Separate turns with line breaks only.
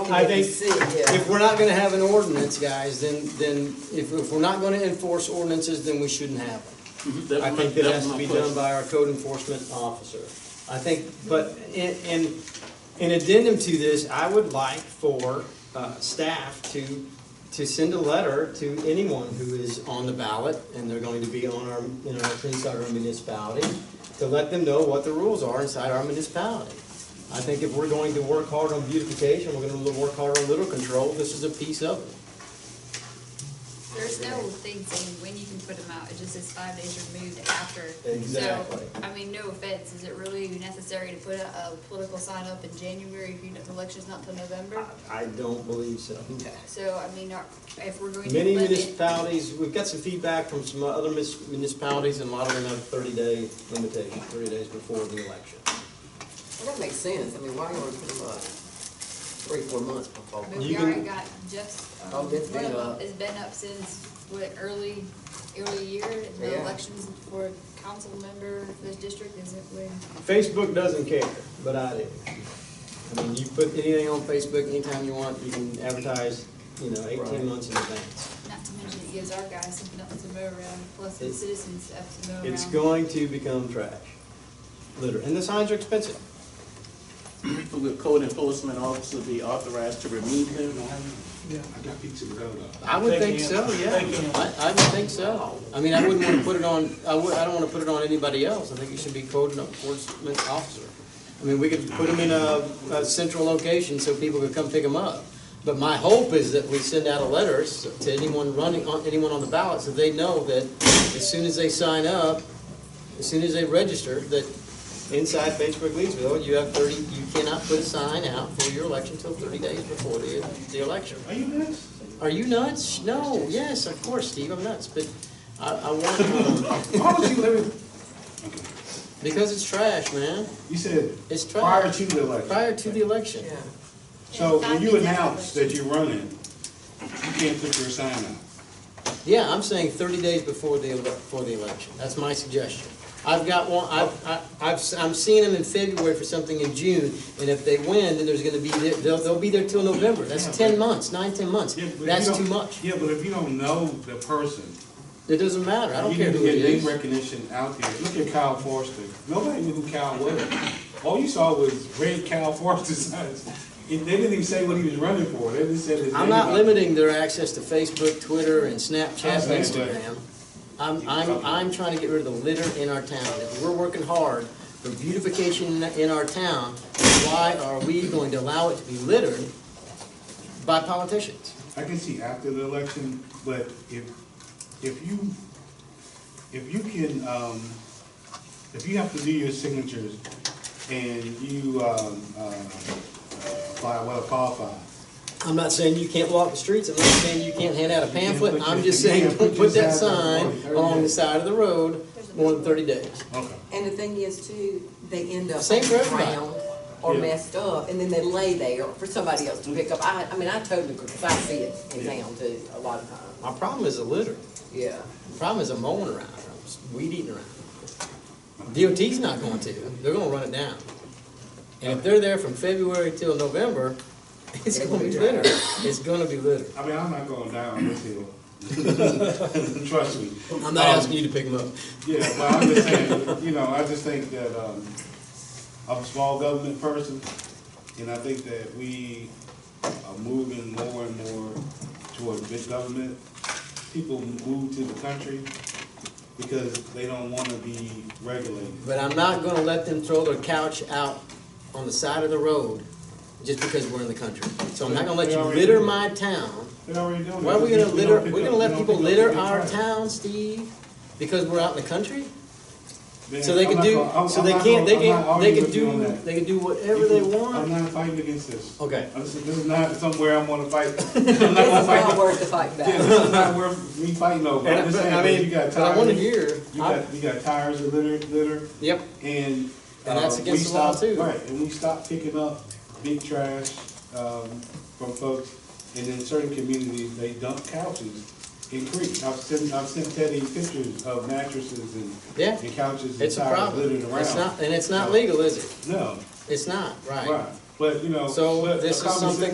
I
what we
think
see, yeah.
if we're not gonna have an ordinance, guys, then, then if, if we're not gonna enforce ordinances, then we shouldn't have them.
Mhm.
I think that
That was my-
has
was
to
my
be
question.
done by our code enforcement officer. I think, but in, in, in addendum to this, I would like for, uh, staff to, to send a letter to anyone who is on the ballot, and they're going to be on our, you know, inside our municipality, to let them know what the rules are inside our municipality. I think if we're going to work hard on beautification, we're gonna work hard on litter control, this is a piece of it.
There's no thing saying when you can put them out, it just says five days removed after.
Exactly.
So, I mean, no offense, is it really necessary to put a, a political sign up in January if you know the election's not till November?
I don't believe so.
So, I mean, are- if we're going to.
Many
limit-
municipalities, we've got some feedback from some other mis- municipalities, and a lot of them have thirty-day limitation, thirty days before the election.
Well, that makes sense, I mean, why you wanna put them up three, four months before?
I mean,
You
we already
can-
got Jeff's, um,
Oh,
one
it's
of
been
them
up.
has been up since, what, early, early year? The
Yeah.
elections for council member, for this district isn't when,
Facebook doesn't care, but I do. I mean, you put anything on Facebook anytime you want, you can advertise, you know,
Right.
eighteen months in advance.
not to mention it gives our guys something else to mow around, plus the
It's-
citizens have to mow around.
It's going to become trash, litter, and the signs are expensive.
Will code enforcement officer be authorized to remove them?
Yeah, I got pizza without a.
I would think so, yeah. I, I would think so. I mean, I wouldn't wanna put it on, I would, I don't wanna put it on anybody else. I think it should be code enforcement officer. I mean, we could put them in a, a central location so people could come pick them up. But my hope is that we send out a letter s- to anyone running, on anyone on the ballot, so they know that as soon as they sign up, as soon as they register, that inside Facebook Leesville, you have thirty, you cannot put a sign out for your election till thirty days before the, the election.
Are you nuts?
Are you nuts? No, yes, of course, Steve, I'm nuts, but I, I want, um,
Why would you let me,
because it's trash, man.
you said
It's
prior
trash,
to the election.
prior to the election.
Yeah,
So when you announce that you're running, you can't put your sign out.
Yeah, I'm saying thirty days before the, ele- before the election, that's my suggestion. I've got one, I've, I- I've, s- I'm seeing them in February for something in June, and if they win, then there's gonna be, there- they'll, they'll be there till November, that's ten months, nine, ten months.
Yeah, but if you
That's too
don't-
much,
Yeah, but if you don't know the person,
it doesn't matter, I don't
you
care
need to
who it
get name
is.
recognition out there. Look at Kyle Forster. Nobody knew who Kyle was. All you saw was red Kyle Forster signs. And They didn't even say what he was running for. They just said his name.
I'm not
out.
limiting their access to Facebook, Twitter, and Snapchat, and
I'm saying, but-
Instagram. I'm, I'm, I'm trying to get rid of the litter in our town. If we're working hard for beautification in our town, why are we going to allow it to be littered by politicians?
I can see after the election, but if, if you, if you can, um, if you have to do your signatures and you, um, uh, apply, well, qualify.
I'm not saying you can't walk the streets, I'm not saying you can't hand out a pamphlet,
put
I'm
your-
just
you
saying,
can't
don't
put
put that
your sign
sign
on the road.
along the side of the road more than thirty days.
Okay.
and the thing is too, they end up
Same for everybody.
ground or
Yeah.
messed up, and then they lay there for somebody else to pick up. I, I mean, I totally agree, 'cause I see it in
Yeah.
town too, a lot of times,
My problem is the litter.
yeah.
The problem is I'm mowing around, I'm weed eating around. DOT's not going to, they're gonna run it down. And if they're there from February till November, it's gonna be litter, it's gonna be litter.
I mean, I'm not going down this hill. Trust me.
I'm
Um,
not asking you to pick them up.
Yeah, but I'm just saying, you know, I just think that, um, I'm a small government person, and I think that we are moving more and more toward big government. People move to the country because they don't wanna be regulated.
But I'm not gonna let them throw their couch out on the side of the road just because we're in the country. So I'm not gonna let you litter my town.
They're already doing it.
Why are we gonna
We don't
litter,
pick
we're gonna
up-
let
we don't
people
pick up
litter
the
our
trash.
town, Steve? Because we're out in the country?
Man,
So they
I'm
can
not
do,
gonna- I'm-
so
I'm
they
not
can't, they
gonna- I'm
can,
not
they
arguing
can
with you on
do,
that.
they can do whatever they
I'm
want.
not fighting against this.
Okay.
I'm just- This is not somewhere I'm gonna fight. I'm not
It's
gonna fight
not worth the fight
Yeah,
back.
this is not worth me fighting over. I'm
And,
just
but,
saying,
I
but you
mean,
got
but I wanna
tires,
hear,
you
I,
got, you got tires that litter, litter,
yep,
and.
And that's
uh, we
against the law,
stopped-
too.
Right, and we stopped picking up big trash, um, from folks, and in certain communities, they dump couches in creeks. I've sent, I've sent Teddy pictures of mattresses and.
Yeah.
And couches and
it's a
tires littered
problem.
around.
It's not, and it's not legal, is it?
No,
It's not, right?
right, but, you know.
So
but a
this is
conversation-
something